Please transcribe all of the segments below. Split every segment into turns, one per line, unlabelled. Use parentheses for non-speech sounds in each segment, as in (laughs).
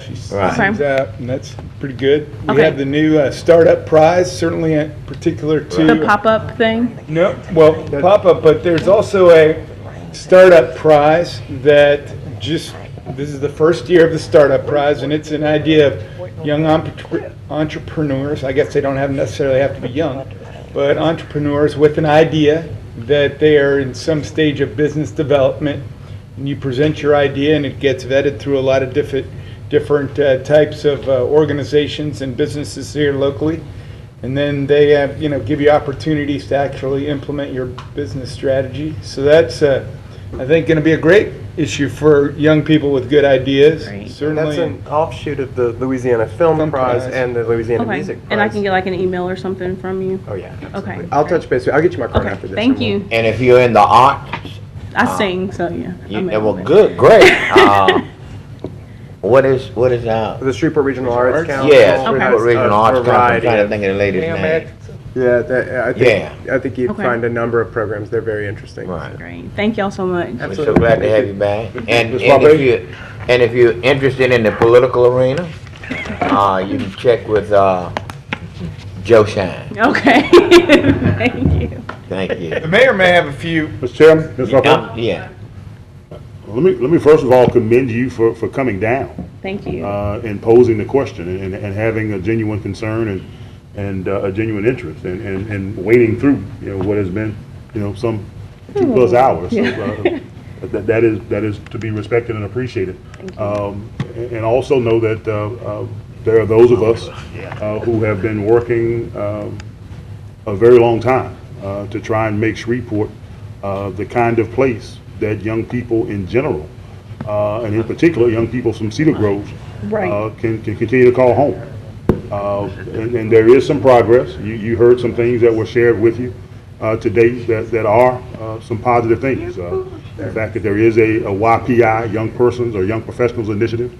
She sings
Right.
out, and that's pretty good. We
Okay.
have the new uh, startup prize, certainly in particular to.
The pop-up thing?
No, well, pop-up, but there's also a startup prize that just, this is the first year of the startup prize, and it's an idea of young entrepre- entrepreneurs, I guess they don't have, necessarily have to be young, but entrepreneurs with an idea that they are in some stage of business development, and you present your idea, and it gets vetted through a lot of different, different uh, types of uh, organizations and businesses here locally. And then they have, you know, give you opportunities to actually implement your business strategy. So that's, uh, I think, going to be a great issue for young people with good ideas.
Great.
Certainly.
That's an offshoot of the Louisiana Film
Film
Prize
Prize.
and the Louisiana
Okay.
Music Prize.
And I can get like an email or something from you?
Oh, yeah. absolutely.
Okay.
I'll touch base, with you. I'll get you my card
Okay,
after this.
thank
and we'll-
you.
And if you're in the arts,
I sing, so yeah.
you,
I'm
well,
available.
good, great. Uh, what is what is uh, that?
The Shreveport Regional Arts
Arts?
Council.
Yes,
has
Shreveport
a
Regional Arts Council. I'm
variety
trying to
of-
think of the latest name.
Yeah, that- I think, I think you'd
Okay.
find a number of programs, they're very interesting.
Right.
Great. Thank y'all so much.
We're so glad to have you back. And,
Ms.
and if
Barber?
you and if you're interested in the political arena, uh, you can check with uh, Joe Shine.
(laughs) Okay. (laughs) Thank you.
Thank you.
The mayor may have a few
Mr. Chairman, Ms. Lockhart,
Um, yeah.
let me, let me first of all commend you for, for coming down,
Thank
Um,
you.
uh, and posing the question and, and having a genuine concern and, and uh, a genuine interest and, and, and wading through, you know, what has been, you know, some two plus hours. So, uh, That, that is, that is to be respected and appreciated. Um, and and also know that, uh, uh, there are those of us, uh, who have been working, um, a very long time uh, to try and make Shreveport uh, the kind of place that young people in general, uh, and in particular, young people from Cedar Grove,
Right.
uh, can, can continue to call home. Uh, And, and there is some progress. You, you heard some things that were shared with you uh, today that, that are uh, some positive things. Uh, The fact that there is a a YPI, Young Persons or Young Professionals Initiative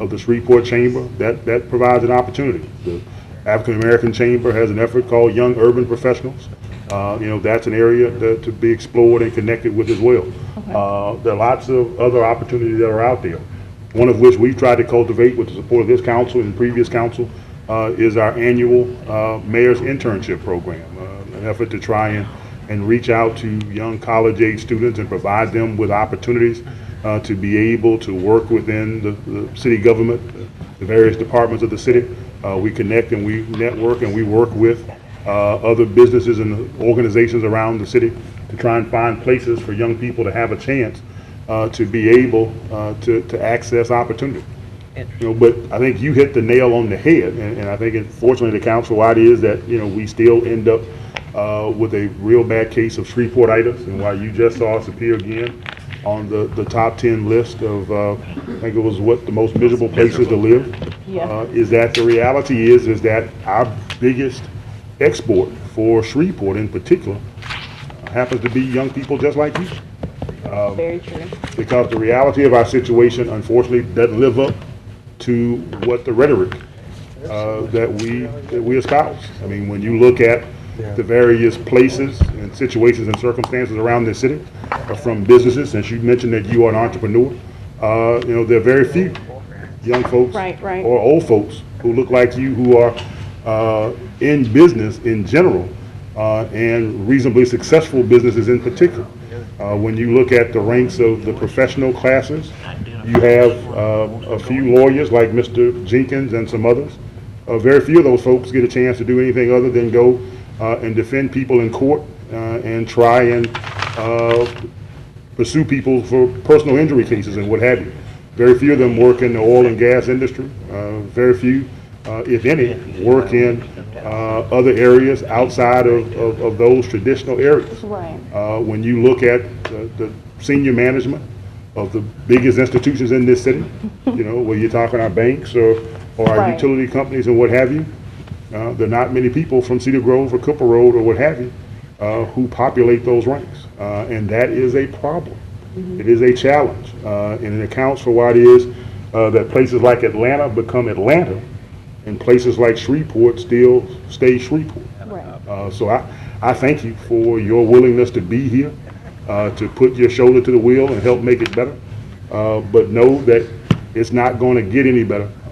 of the Shreveport Chamber, that, that provides an opportunity. The- African American Chamber has an effort called Young Urban Professionals. Uh, You know, that's an area that- to be explored and connected with as well. Uh, There are lots of other opportunities that are out there, one of which we've tried to cultivate with the support of this council and previous council uh, is our annual uh, mayor's internship program, uh, an effort to try and, and reach out to young college-age students and provide them with opportunities uh, to be able to work within the, the city government, the various departments of the city. Uh, we connect and we network and we work with, uh, other businesses and organizations around the city to try and find places for young people to have a chance, uh, to be able, uh, to, to access opportunity. You know, but I think you hit the nail on the head, and, and I think unfortunately the council wide is that, you know, we still end up, uh, with a real bad case of Shreveportitis, and why you just saw us appear again on the, the top ten list of, uh, I think it was what, the most miserable places to live?
Yeah.
Uh, Is that the reality is, is that our biggest export for Shreveport in particular happens to be young people just like you
Very true.
because the reality of our situation unfortunately doesn't live up to what the rhetoric uh, that we, that we espouse. I mean, when you look at the various places and situations and circumstances around this city, uh, from businesses, since you mentioned that you are an entrepreneur, uh, you know, there are very few young folks.
Right, right.
Or old folks who look like you, who are uh, in business in general, uh, and reasonably successful businesses in particular. Uh, When you look at the ranks of the professional classes, you have uh, a few lawyers like Mr. Jenkins and some others. Uh, Very few of those folks get a chance to do anything other than go uh, and defend people in court uh, and try and uh, pursue people for personal injury cases and what have you. Very few of them work in the oil and gas industry. Uh, Very few, uh, if any, work in uh, other areas outside of- of of those traditional areas.
Right.
Uh, When you look at the the senior management of the biggest institutions in this city, you know, whether you're talking our banks or or our
Right.
utility companies and what have you, uh, there are not many people from Cedar Grove or Cooper Road or what have you uh, who populate those ranks. Uh, And that is a problem. It is a challenge. Uh, And it accounts for why it is uh, that places like Atlanta become Atlanta and places like Shreveport still stay Shreveport.
Right.
Uh, So I, I thank you for your willingness to be here, uh, to put your shoulder to the wheel and help make it better. Uh, But know that it's not going to get any better